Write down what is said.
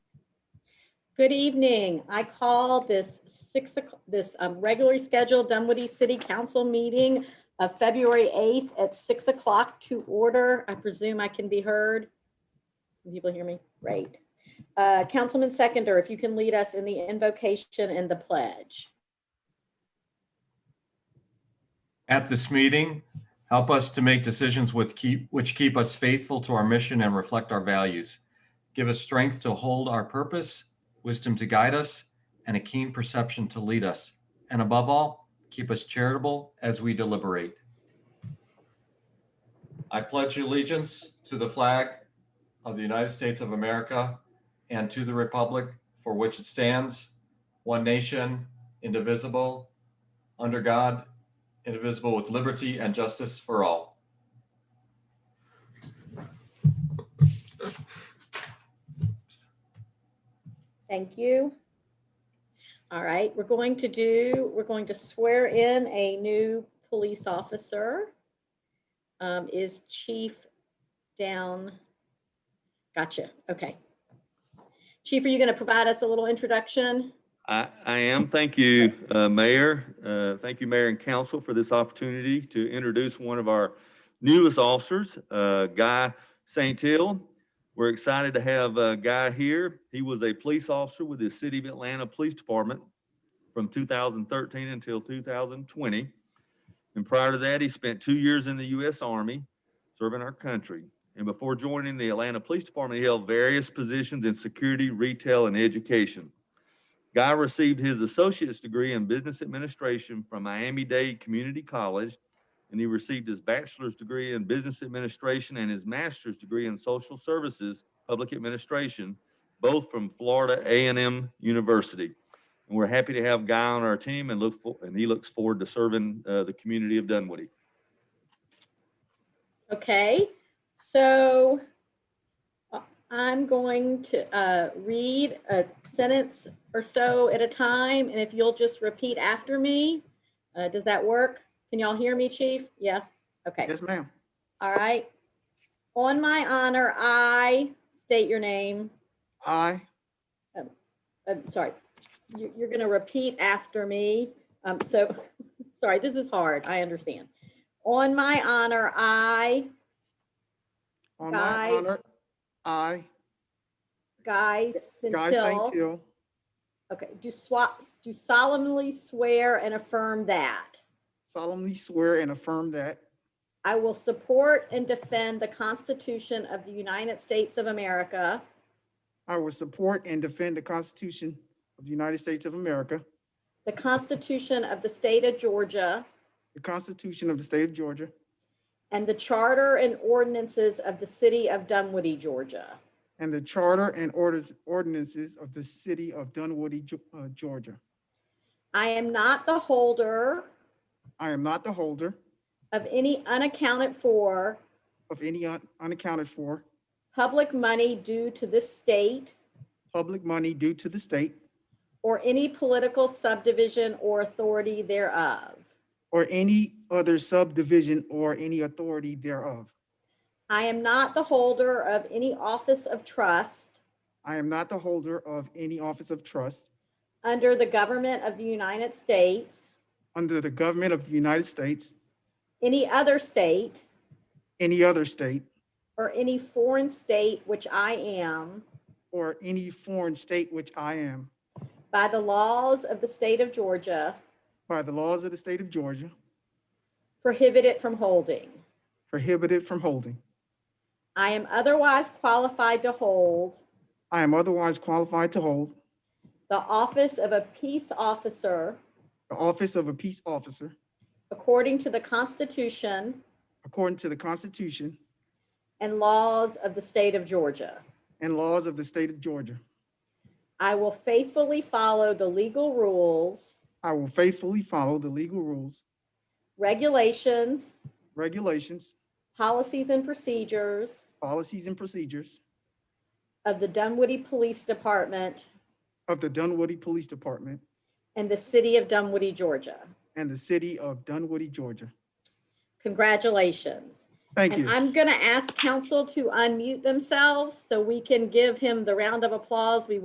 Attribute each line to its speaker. Speaker 1: Good evening. I call this six, o'clock this um, regularly scheduled Dunwoody City Council meeting of February 8th at 6 o'clock to order. I presume I can be heard. Can People hear me? Great. Uh, Councilman Seconder, if you can lead us in the invocation and the pledge.
Speaker 2: At this meeting, help us to make decisions with keep, which keep us faithful to our mission and reflect our values. Give us strength to hold our purpose, wisdom to guide us, and a keen perception to lead us. And above all, keep us charitable as we deliberate. I pledge allegiance to the flag of the United States of America and to the republic for which it stands, one nation, indivisible, under God, indivisible, with liberty and justice for all.
Speaker 1: Thank you. All right, we're going to do, we're going to swear in a new police officer. Um, Is Chief down? Gotcha, okay. Chief, are you going to provide us a little introduction?
Speaker 3: I, I am. Thank you, uh, Mayor. Uh, Thank you, Mayor and Council, for this opportunity to introduce one of our newest officers, uh, Guy St. Hill. We're excited to have uh, Guy here. He was a police officer with the City of Atlanta Police Department from 2013 until 2020. And prior to that, he spent two years in the U.S. Army serving our country. And before joining the Atlanta Police Department, he held various positions in security, retail, and education. Guy received his associate's degree in business administration from Miami-Dade Community College, and he received his bachelor's degree in business administration and his master's degree in social services, public administration, both from Florida A and M University. And we're happy to have Guy on our team and look for, and he looks forward to serving uh, the community of Dunwoody.
Speaker 1: Okay, so uh, I'm going to uh, read a sentence or so at a time, and if you'll just repeat after me, uh, does that work? Can y'all hear me, Chief? Yes? Okay,
Speaker 4: Yes, ma'am.
Speaker 1: all right. On my honor, I state your name.
Speaker 4: I,
Speaker 1: I'm sorry, you- you're going to repeat after me. Um, So, sorry, this is hard, I understand. On my honor, I,
Speaker 4: on
Speaker 1: Guy-
Speaker 4: my honor, I,
Speaker 1: Guy
Speaker 4: Guy St.
Speaker 1: Centil.
Speaker 4: Till,
Speaker 1: Okay, do swap, do solemnly swear and affirm that
Speaker 4: solemnly swear and affirm that
Speaker 1: I will support and defend the Constitution of the United States of America
Speaker 4: I will support and defend the Constitution of the United States of America,
Speaker 1: The Constitution of the State of Georgia
Speaker 4: the Constitution of the State of Georgia,
Speaker 1: and the Charter and ordinances of the City of Dunwoody, Georgia.
Speaker 4: and the Charter and orders, ordinances of the city of Dunwoody, Ge- uh, Georgia.
Speaker 1: I am not the holder
Speaker 4: I am not the holder
Speaker 1: of any unaccounted for
Speaker 4: of any un- unaccounted for
Speaker 1: public money due to this state
Speaker 4: public money due to the state
Speaker 1: or any political subdivision or authority thereof.
Speaker 4: or any other subdivision or any authority thereof.
Speaker 1: I am not the holder of any office of trust
Speaker 4: I am not the holder of any office of trust
Speaker 1: under the government of the United States,
Speaker 4: under the government of the United States,
Speaker 1: any other state,
Speaker 4: any other state,
Speaker 1: or any foreign state which I am
Speaker 4: or any foreign state which I am,
Speaker 1: by the laws of the state of Georgia
Speaker 4: by the laws of the state of Georgia,
Speaker 1: prohibited from holding.
Speaker 4: prohibited from holding.
Speaker 1: I am otherwise qualified to hold
Speaker 4: I am otherwise qualified to hold
Speaker 1: the office of a peace officer
Speaker 4: the office of a peace officer
Speaker 1: according to the Constitution
Speaker 4: according to the Constitution
Speaker 1: and laws of the state of Georgia.
Speaker 4: and laws of the state of Georgia.
Speaker 1: I will faithfully follow the legal rules,
Speaker 4: I will faithfully follow the legal rules,
Speaker 1: regulations,
Speaker 4: regulations,
Speaker 1: policies, and procedures
Speaker 4: policies, and procedures
Speaker 1: of the Dunwoody Police Department
Speaker 4: of the Dunwoody Police Department
Speaker 1: and the city of Dunwoody, Georgia.
Speaker 4: and the city of Dunwoody, Georgia.
Speaker 1: Congratulations.
Speaker 4: Thank
Speaker 1: And
Speaker 4: you.
Speaker 1: I'm going to ask council to unmute themselves so we can give him the round of applause we